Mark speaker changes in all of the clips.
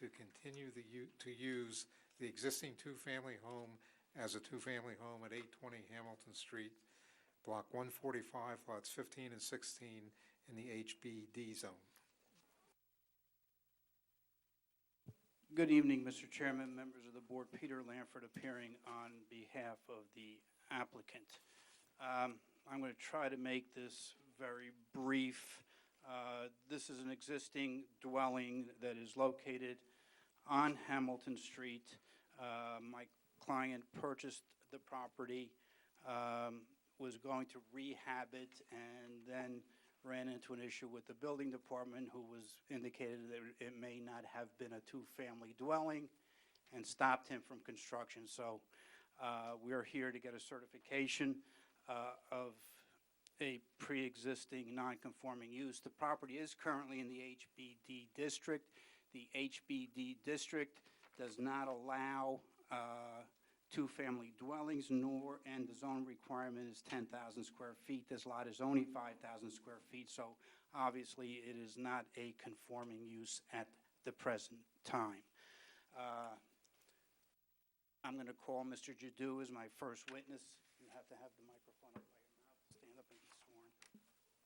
Speaker 1: to continue the, u- to use the existing two-family home as a two-family home at 820 Hamilton Street, Block 145, lots 15 and 16, in the HBD zone.
Speaker 2: Good evening, Mr. Chairman, members of the board. Peter Lanford appearing on behalf of the applicant. Um, I'm going to try to make this very brief. Uh, This is an existing dwelling that is located on Hamilton Street. Uh, My client purchased the property, um, was going to rehab it, and then ran into an issue with the building department, who was indicated that it may not have been a two-family dwelling, and stopped him from construction. So uh, we are here to get a certification uh, of a pre-existing non-conforming use. The property is currently in the HBD district. The HBD district does not allow uh, two-family dwellings, nor, and the zone requirement is 10,000 square feet. This lot is only 5,000 square feet, so obviously it is not a conforming use at the present time. Uh, I'm going to call Mr. Jadu as my first witness. You have to have the microphone up by your mouth, stand up and be sworn.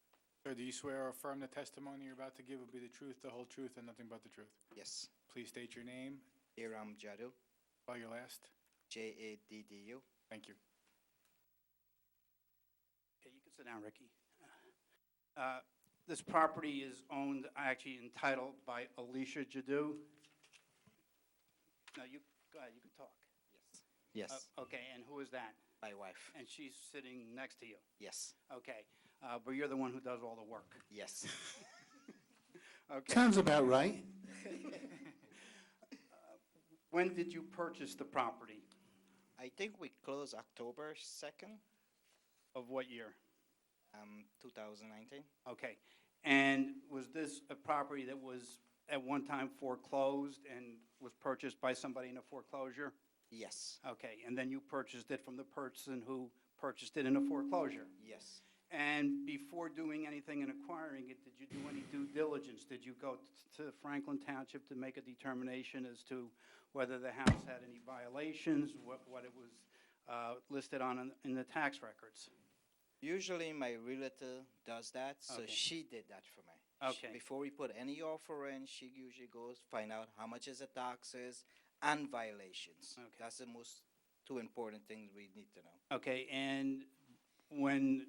Speaker 3: Sir, do you swear or affirm the testimony you're about to give will be the truth, the whole truth, and nothing but the truth?
Speaker 4: Yes.
Speaker 3: Please state your name,
Speaker 4: Iram Jadu,
Speaker 3: spell your last.
Speaker 4: J A D D U.
Speaker 3: Thank you.
Speaker 2: Okay, you can sit down, Ricky. Uh, This property is owned, actually entitled by Alicia Jadu. No, you, go ahead, you can talk.
Speaker 4: Yes. Yes.
Speaker 2: Uh, Okay, and who is that?
Speaker 4: My wife.
Speaker 2: And she's sitting next to you.
Speaker 4: Yes.
Speaker 2: Okay, uh, but you're the one who does all the work.
Speaker 4: Yes.
Speaker 2: Okay. Uh,
Speaker 5: Sounds about right.
Speaker 2: When did you purchase the property?
Speaker 4: I think we close October 2nd,
Speaker 2: Of what year?
Speaker 4: um, 2019.
Speaker 2: Okay. And was this a property that was at one time foreclosed and was purchased by somebody in a foreclosure?
Speaker 4: Yes.
Speaker 2: Okay, and then you purchased it from the person who purchased it in a foreclosure?
Speaker 4: Yes.
Speaker 2: And before doing anything and acquiring it, did you do any due diligence? Did you go t- to Franklin Township to make a determination as to whether the house had any violations, what, what it was uh, listed on in- in the tax records?
Speaker 4: Usually my realtor does that, so
Speaker 2: Okay.
Speaker 4: she did that for me. She-
Speaker 2: Okay.
Speaker 4: before we put any offer in, she usually goes find out how much is the taxes and violations.
Speaker 2: Okay.
Speaker 4: That's the most two important things we need to know.
Speaker 2: Okay, and when,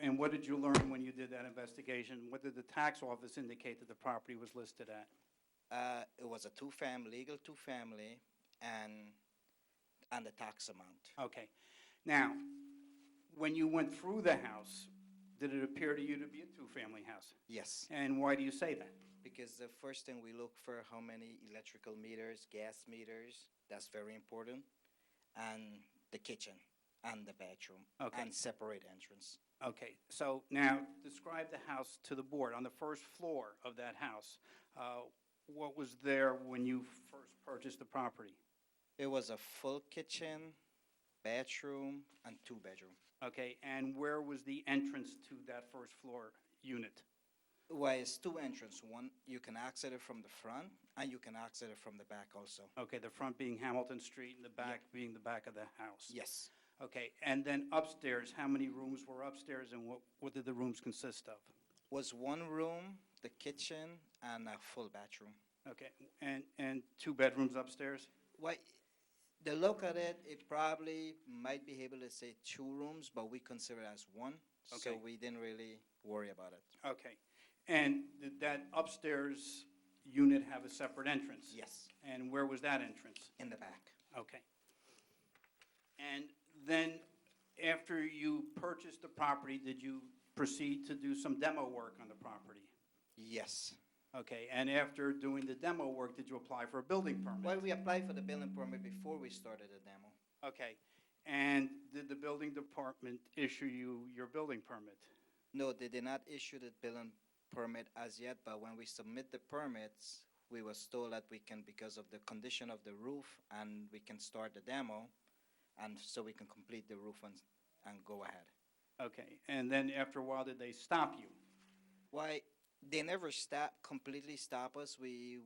Speaker 2: and what did you learn when you did that investigation? What did the tax office indicate that the property was listed at?
Speaker 4: Uh, it was a two-family, legal two-family, and and the tax amount.
Speaker 2: Okay. Now, when you went through the house, did it appear to you to be a two-family house?
Speaker 4: Yes,
Speaker 2: And why do you say that?
Speaker 4: because the first thing we look for how many electrical meters, gas meters. That's very important, and the kitchen and the bedroom
Speaker 2: Okay.
Speaker 4: and separate entrance.
Speaker 2: Okay, so now describe the house to the board. On the first floor of that house, uh, what was there when you first purchased the property?
Speaker 4: It was a full kitchen, bedroom, and two bedroom.
Speaker 2: Okay, and where was the entrance to that first floor unit?
Speaker 4: Well, it's two entrance. One you can access it from the front, and you can access it from the back also.
Speaker 2: Okay, the front being Hamilton Street and the back being the back of the house?
Speaker 4: Yes,
Speaker 2: Okay, and then upstairs, how many rooms were upstairs and what, what did the rooms consist of?
Speaker 4: was one room, the kitchen, and a full bathroom.
Speaker 2: Okay, and, and two bedrooms upstairs?
Speaker 4: Well, the look at it, it probably might be able to say two rooms, but we consider it as one. So
Speaker 2: Okay.
Speaker 4: we didn't really worry about it.
Speaker 2: Okay, and did that upstairs unit have a separate entrance?
Speaker 4: Yes.
Speaker 2: And where was that entrance?
Speaker 4: In the back.
Speaker 2: Okay. And then, after you purchased the property, did you proceed to do some demo work on the property?
Speaker 4: Yes.
Speaker 2: Okay, and after doing the demo work, did you apply for a building
Speaker 4: Well,
Speaker 2: permit?
Speaker 4: we applied for the building permit before we started the demo.
Speaker 2: Okay, and did the building department issue you your building permit?
Speaker 4: No, they did not issue the building permit as yet, but when we submit the permits, we was told that we can, because of the condition of the roof, and we can start the demo, and so we can complete the roof and, and go ahead.
Speaker 2: Okay, and then after a while, did they stop you?
Speaker 4: Why, they never stop, completely stop us. We